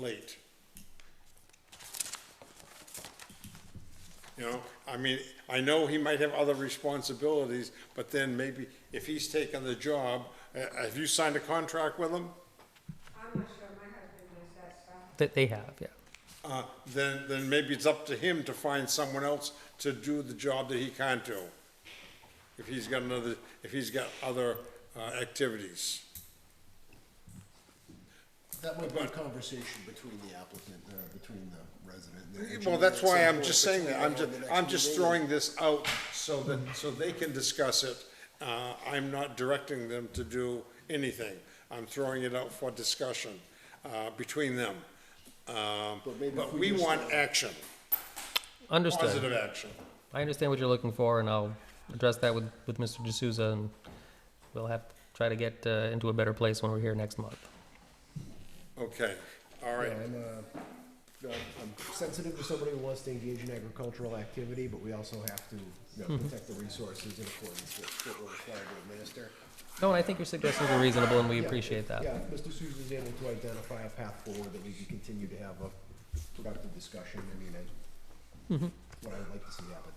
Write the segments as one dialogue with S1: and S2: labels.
S1: late. You know, I mean, I know he might have other responsibilities, but then maybe if he's taken the job, uh, have you signed a contract with him?
S2: I'm not sure my husband does that stuff.
S3: That they have, yeah.
S1: Uh, then, then maybe it's up to him to find someone else to do the job that he can't do. If he's got another, if he's got other, uh, activities.
S4: That might be a conversation between the applicant, uh, between the resident. and the
S1: Well,
S4: engineer
S1: that's
S4: at
S1: why
S4: some
S1: I'm
S4: point
S1: just saying
S4: between
S1: that, I'm
S4: now
S1: just,
S4: and the next
S1: I'm just
S4: meeting.
S1: throwing this out so that, so they can discuss it. Uh, I'm not directing them to do anything, I'm throwing it out for discussion, uh, between them. Um,
S4: But maybe
S1: but
S4: if we
S1: we
S4: just-
S1: want action, positive
S3: Understood.
S1: action.
S3: I understand what you're looking for, and I'll address that with, with Mr. D'Souza, and we'll have to try to get uh, into a better place when we're here next month.
S1: Okay, all right,
S5: I'm, uh, I'm I'm sensitive to somebody who wants to engage in agricultural activity, but we also have to, you know, protect the resources in accordance with what we're required to administer.
S3: No, and I think your suggestions are reasonable, and we
S5: Yeah,
S3: appreciate that.
S5: Yeah, if Mr. Sousa is able to identify a path forward that we can continue to have a productive discussion, I mean, I, what I would like to see happen.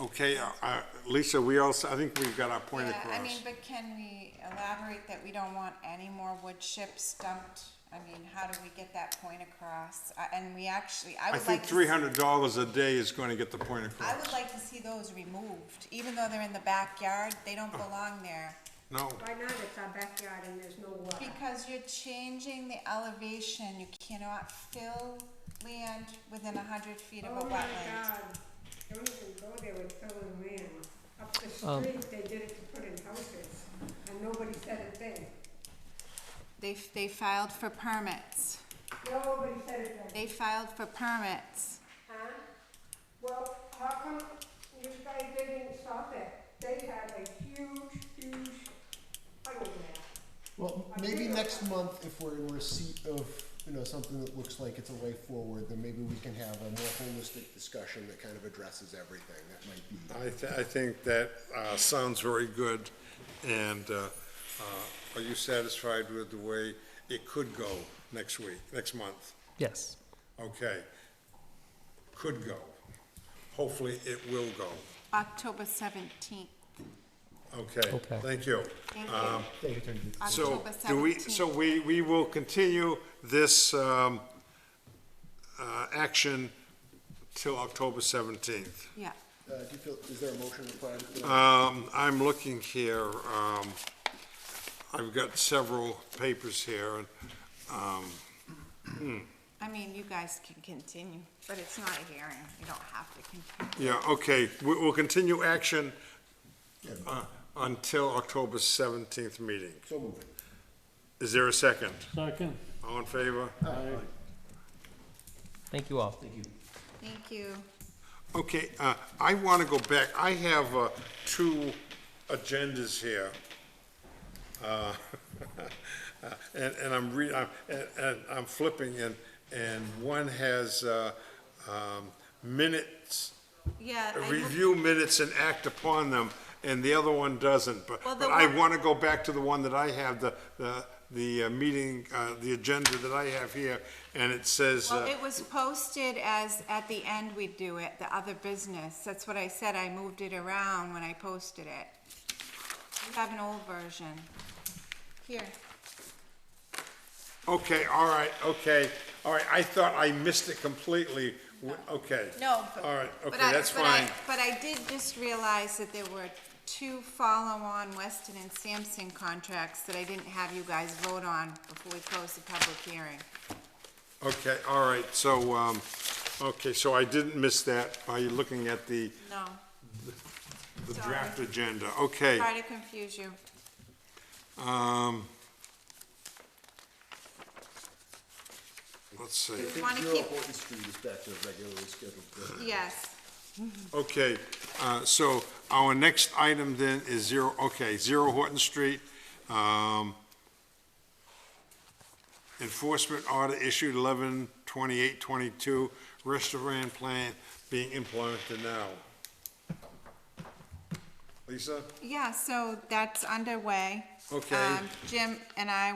S1: okay, uh, uh, Lisa, we also, I think we've got our point
S6: Yeah, I mean,
S1: across.
S6: but can we elaborate that we don't want any more wood chips dumped? I mean, how do we get that point across? Uh, And we actually, I
S1: I
S6: would
S1: think
S6: like to.
S1: three hundred dollars a day is gonna get the point
S6: I
S1: across,
S6: would like to see those removed, even though they're in the backyard, they
S1: Oh.
S6: don't belong there.
S1: no,
S2: Right now, it's our backyard and there's no water.
S6: Because you're changing the elevation, you cannot fill land within a hundred feet of
S2: Oh
S6: a
S2: my
S6: wetland.
S2: God, don't even go there with filling land. Up the street, they did it to put in houses, and nobody said a thing.
S6: They, they filed for permits,
S2: Nobody said a thing.
S6: they filed for permits.
S2: Huh? Well, how come you guys didn't stop it? They had a huge, huge fire there.
S5: Well,
S2: I
S5: maybe
S2: do.
S5: next month, if we're in receipt of, you know, something that looks like it's a way forward, then maybe we can have a more holistic discussion that kind of addresses everything. That might be.
S1: I, th- I think that uh, sounds very good, and uh, uh, are you satisfied with the way it could go next week, next month?
S3: Yes.
S1: Okay. Could go. Hopefully, it will go.
S6: October seventeenth,
S1: Okay,
S3: Okay.
S1: thank you.
S6: thank you,
S5: Thank you, Attorney Ginsburg.
S1: Um, So,
S6: October seventeenth.
S1: do we, so we, we will continue this um, uh, action till October 17th.
S6: Yeah.
S5: Uh, do you feel, is there a motion required? for that?
S1: Um, I'm looking here, um, I've got several papers here, and
S6: I mean, you guys can continue, but it's not a hearing, you don't have to continue.
S1: Yeah, okay, we, we'll continue action, uh, until October seventeenth meeting.
S5: So moved.
S1: Is there a second?
S7: Second.
S1: All in favor?
S3: Thank you all.
S6: Thank you.
S1: Okay, uh, I wanna go back, I have, uh, two agendas here. Uh, and, and I'm re, I'm- and, and I'm flipping, and, and one has, uh, um, minutes,
S6: Yeah, I hope-
S1: review minutes and act upon them, and the other one doesn't, but,
S6: Well, the
S1: but I
S6: one-
S1: wanna go back to the one that I have, the, the, the uh, meeting, uh, the agenda that I have here, and it says,
S6: well,
S1: uh,
S6: it was posted as, at the end we do it, the other business, that's what I said, I moved it around when I posted it. You have an old version. Here,
S1: uh, okay, all right, okay, all right, I thought I missed it completely, W- okay.
S6: no, but.
S1: All right,
S6: but
S1: okay,
S6: I-
S1: that's
S6: but I-
S1: fine,
S6: But I did just realize that there were two follow-on Weston and Sampson contracts that I didn't have you guys vote on before we closed the public hearing.
S1: okay, all right, so, um, okay, so I didn't miss that by looking at the,
S6: No.
S1: the
S6: Sorry.
S1: draft agenda, okay.
S6: Try to confuse you.
S1: Um, let's see.
S5: I think
S6: wanna
S5: Zero
S6: keep-
S5: Horton Street is back to a regularly scheduled. business.
S6: Yes,
S1: Okay, uh, so our next item then is zero, okay, zero Horton Street. Um, enforcement order issued eleven twenty-eight twenty-two, restaurant plan being implemented now. Lisa?
S6: Yeah, so that's underway.
S1: Okay.
S6: Um, Jim and I